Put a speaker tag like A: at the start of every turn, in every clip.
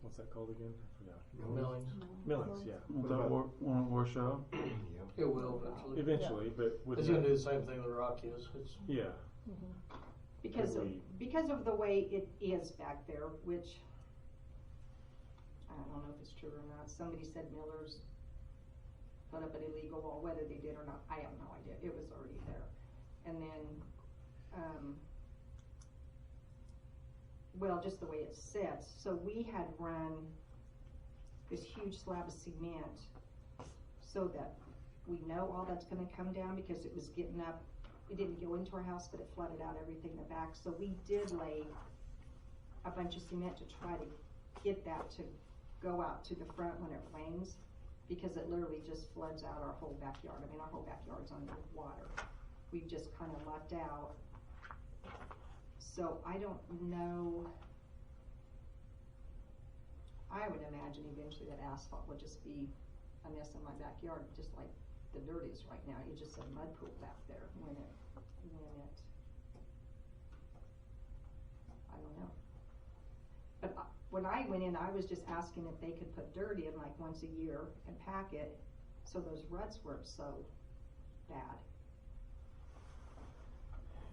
A: what's that called again? I forgot.
B: Millings.
A: Millings, yeah.
C: Won't
A: What
C: that
A: about-
C: war, won't it wash out?
B: It will eventually.
A: Eventually, but with
B: It's gonna
A: that-
B: do the same thing the rock is. It's,
A: yeah,
D: Because,
A: Could
D: of-
A: we-
D: because of the way it is back there, which, I don't know if it's true or not, somebody said Miller's put up an illegal wall, whether they did or not, I have no idea, it was already there. And then, um, well, just the way it sits, so we had run this huge slab of cement so that we know all that's gonna come down, because it was getting up it didn't go into our house, but it flooded out everything in the back, so we did lay a bunch of cement to try to get that to go out to the front when it rains, because it literally just floods out our whole backyard, I mean, our whole backyard's under water. We've just kinda lucked out. So I don't know. I would imagine eventually that asphalt would just be a mess in my backyard, just like the dirt is right now, it's just a mud pool back there when it, when it, I don't know. But I- when I went in, I was just asking if they could put dirt in like once a year and pack it, so those ruts weren't so bad.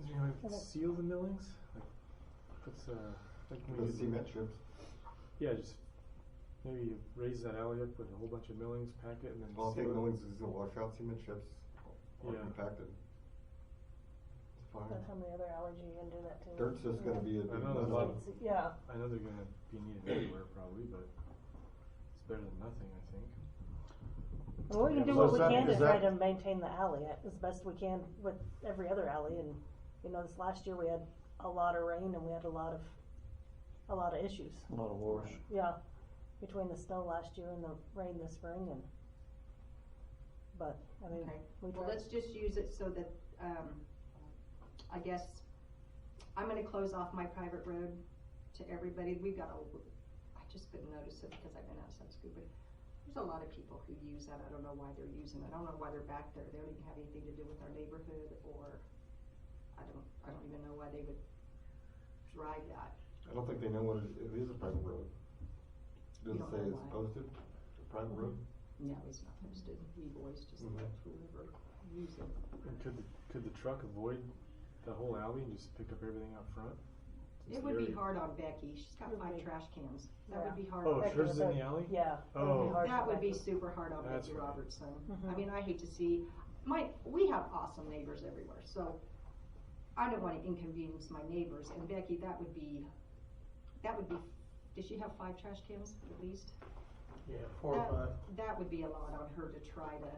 A: is there any way we could seal the millings? Like, what's uh, like when you-
E: strips.
A: Yeah, just maybe you raise that alley up with a whole bunch of millings, pack it, and then
E: All
A: seal
E: take
A: it.
E: millings is gonna wash out cement strips or
A: Yeah.
E: compacted. It's fine.
F: But how many other allergy you can do that to?
E: Dirt's just gonna be
A: I
E: a big
A: know there's a
E: mess.
A: lot of-
F: It's- Yeah,
A: I know they're gonna be needed everywhere probably, but it's better than nothing, I think.
F: well, we
A: Yeah,
F: can do
A: so
F: what
E: is
F: we
E: that-
F: can to
E: is
F: try
E: that-
F: to maintain the alley uh, as best we can with every other alley, and, you know, this last year we had a lot of rain and we had a lot of, a lot of issues,
C: A lot of wash.
F: yeah, between the snow last year and the rain this spring and, but, I mean,
D: Okay.
F: we
D: Well,
F: tried.
D: let's just use it so that, um, I guess, I'm gonna close off my private road to everybody, we've got a, I just couldn't notice it because I've been outside scooping. There's a lot of people who use that, I don't know why they're using it, I don't know why they're back there, they don't even have anything to do with our neighborhood, or, I don't, I don't even know why they would drive that.
E: I don't think they know what it, it is a private road. Does
D: You
E: it
D: don't
E: say
D: know
E: it's
D: why.
E: posted, a private road?
D: No, it's not posted, we always just
A: Mm-hmm.
E: Mhm.
D: let whoever use it.
A: And could the, could the truck avoid the whole alley and just pick up everything out front? Since the
D: It would be
A: area-
D: hard on Becky, she's got
F: Would
D: five
F: be.
D: trash cans, that would be hard. on
A: Oh,
F: Back
A: if
F: to
A: hers is
F: the
A: in the alley?
F: Yeah. it would
A: Oh.
F: hard
D: That
F: to
D: would be
F: back-
D: super hard on
A: That's
D: Becky
A: right.
D: Robertson. I
F: Mhm.
D: mean, I hate to see, my, we have awesome neighbors everywhere, so I don't wanna inconvenience my neighbors, and Becky, that would be, that would be, does she have five trash cans at least?
B: yeah, four or
D: That-
B: five.
D: That would be a lot on her to try to,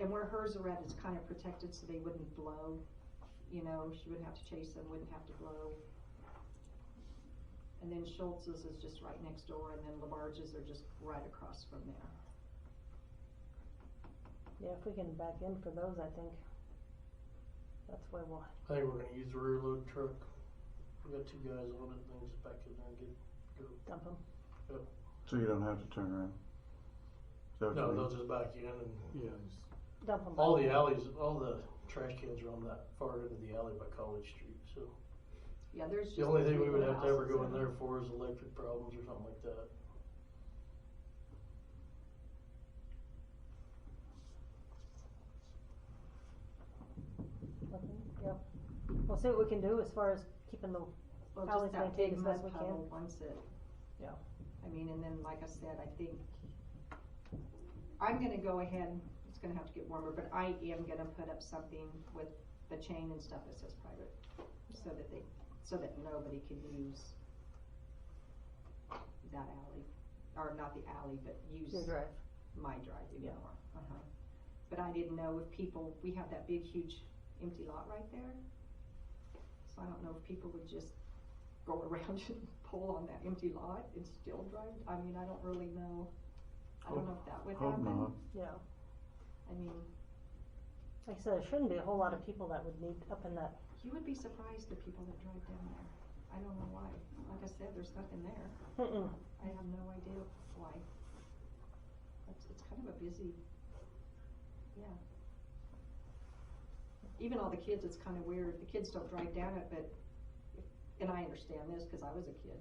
D: and where hers are at is kinda protected, so they wouldn't blow, you know, she wouldn't have to chase them, wouldn't have to blow. And then Schultz's is just right next door, and then Labarge's are just right across from there.
F: Yeah, if we can back in for those, I think that's where we'll,
B: I think we're gonna use the rear load truck. We got two guys on it, and they just back in there and get, go.
F: dump them.
C: So you don't have to turn around. Is that what you
B: No,
C: mean?
B: they'll just back in and
A: Yeah, just
F: dump them.
B: all the alleys, all the trash cans are on that far end of the alley by College Street, so.
D: Yeah, there's just.
B: The only thing we would
D: three
B: have to ever go in
D: houses.
B: there for is electric problems or something like that.
F: Yep. Mm-hmm, We'll see what we can do as far as keeping the,
D: Well,
F: Probably
D: just that
F: maintain
D: big
F: as
D: mud
F: best we can.
D: puddle once it.
F: Yeah.
D: I mean, and then, like I said, I think, I'm gonna go ahead, it's gonna have to get warmer, but I am gonna put up something with the chain and stuff that says private, so that they, so that nobody can use that alley, or not the alley, but use
F: your drive.
D: my drive even
F: Yeah.
D: more. Uh-huh. But I didn't know if people, we have that big, huge empty lot right there. So I don't know if people would just go around and pull on that empty lot and still drive. I mean, I don't really know. I don't know if that would
C: Hope not.
D: happen.
F: Yeah.
D: I mean,
F: Like I said, there shouldn't be a whole lot of people that would need up in that.
D: you would be surprised the people that drive down there. I don't know why. Like I said, there's nothing there.
F: Mm-mm.
D: I have no idea why. It's, it's kind of a busy, yeah. Even all the kids, it's kind of weird, the kids don't drive down it, but, and I understand this, cause I was a kid,